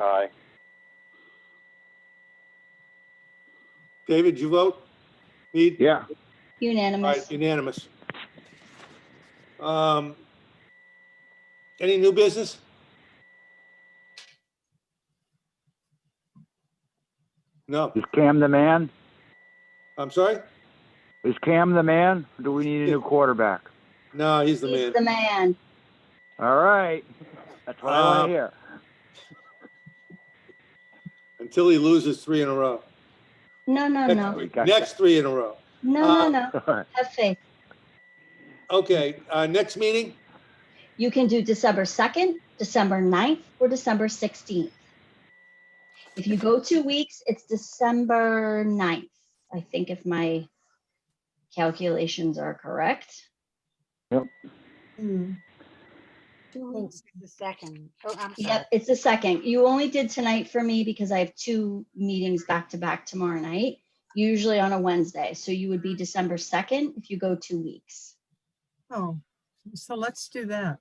Aye. David, you vote? Need? Yeah, All Unanimous. right, unanimous. Um, Any new business? No, is Cam the man? I'm sorry? Is Cam the man? Or Do we need a new quarterback? No, he's the He's man. the man. All right, that's what I want Um, to hear. Until he loses three in a row. No, no, no. Next- Next three in a row. Uh, No, no, no. All right. Have faith. Okay, uh, next meeting? You can do December 2nd, December 9th, or December 16th. If you go two weeks, it's December 9th, I think if my calculations are correct. Yep. Thanks. The second. Oh, I'm sorry. Yep, it's the second. You only did tonight for me because I have two meetings back to back tomorrow night, usually on a Wednesday. So you would be December 2nd if you go two weeks. Oh, so let's do that.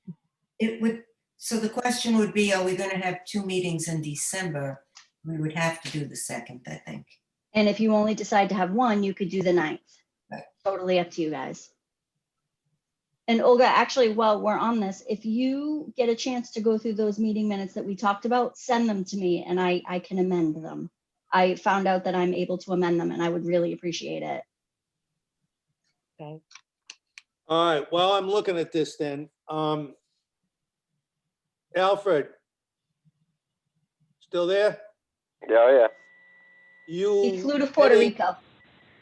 It would, so the question would be, are we going to have two meetings in December? We would have to do the second, I think. And if you only decide to have one, you could do the ninth. Right. Totally up to you guys. And Olga, actually, while we're on this, if you get a chance to go through those meeting minutes that we talked about, send them to me and I, I can amend them. I found out that I'm able to amend them and I would really appreciate it. Okay. All right, well, I'm looking at this then. Um, Alfred? Still there? Yeah, yeah. You? He flew to Puerto heading- Rico.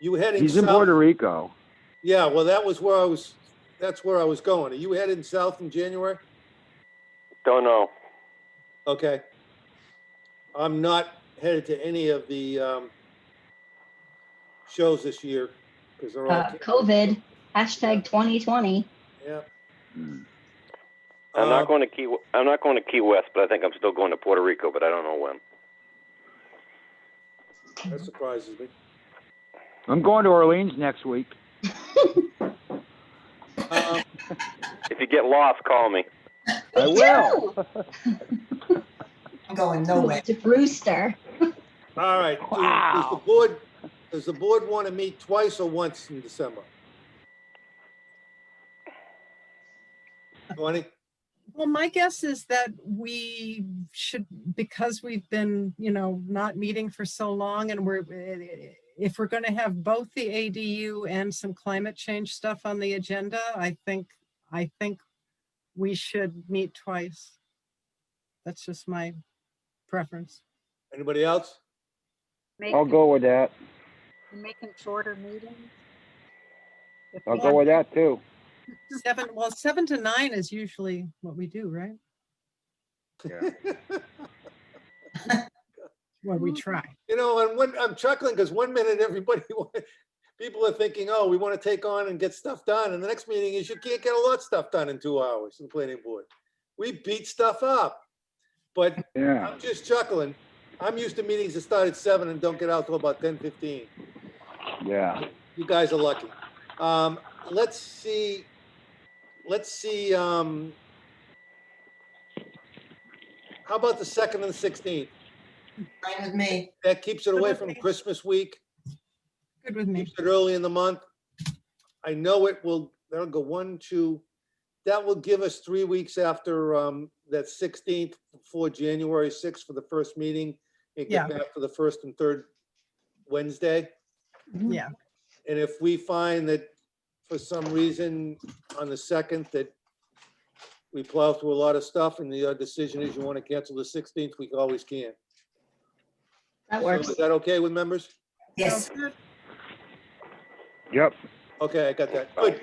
You heading He's in south? Puerto Rico. Yeah, well, that was where I was, that's where I was going. Are you heading south in January? Don't know. Okay. I'm not headed to any of the um, shows this year because they're all. Uh, COVID, hashtag 2020. Yeah. Hmm. I'm Um, not going to Key. I'm not going to Key West, but I think I'm still going to Puerto Rico, but I don't know when. That surprises me. I'm going to Orleans next week. Um, If you get lost, call me. I Oh, will. I'm going nowhere. To Brewster. All right. Do- Does the Wow. board, does the board want to meet twice or once in December? Twenty? Well, my guess is that we should, because we've been, you know, not meeting for so long and we're, eh, if we're going to have both the ADU and some climate change stuff on the agenda, I think, I think we should meet twice. That's just my preference. Anybody else? Make I'll them- go with that. Make them shorter meetings. If I'll we go have- with that too. Seven, well, seven to nine is usually what we do, right? What we try. You know, and when, I'm chuckling because one minute everybody, wa- people are thinking, oh, we want to take on and get stuff done. And the next meeting is you can't get a lot of stuff done in two hours in planning board. We beat stuff up. But Yeah. I'm just chuckling. I'm used to meetings that start at seven and don't get out till about ten fifteen. Yeah. You guys are lucky. Um, let's see, let's see, um, how about the second and the sixteenth? Fine with me. That keeps it away from Christmas week. Good with me. keeps it early in the month. I know it will, that'll go one, two, that will give us three weeks after um, that 16th, before January 6th for the first meeting. It Yeah. get back for the first and third Wednesday. Mm-hmm. Yeah. And if we find that for some reason on the 2nd that we plow through a lot of stuff and the uh, decision is you want to cancel the 16th, we always can. That So works. Is that okay with members? Yes, Yep. Okay, I got that. Good. Uh,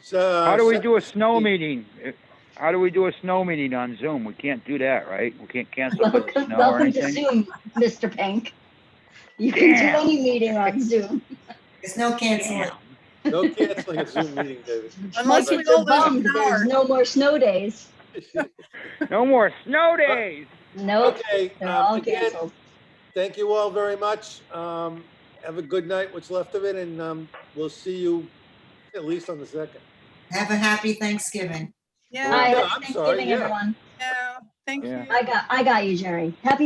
So. How do we do a snow meeting? If- How do we do a snow meeting on Zoom? We can't do that, right? We can't cancel for the Welcome snow or welcome to anything? Zoom, Mr. Pink. You can do Damn. any meeting on Zoom. there's no canceling. No canceling a Zoom meeting, David. Like, Unless we it's a all bum, lose there's power. no more snow days. No more snow days. Nope, Okay, they're um, all again, canceled. thank you all very much. Um, have a good night, what's left of it, and, um, we'll see you at least on the second. Have a happy Thanksgiving. Yeah, Hi, no, happy I'm sorry, Thanksgiving, yeah. everyone. yeah, thank Yeah. you. I got, I got you, Jerry. Happy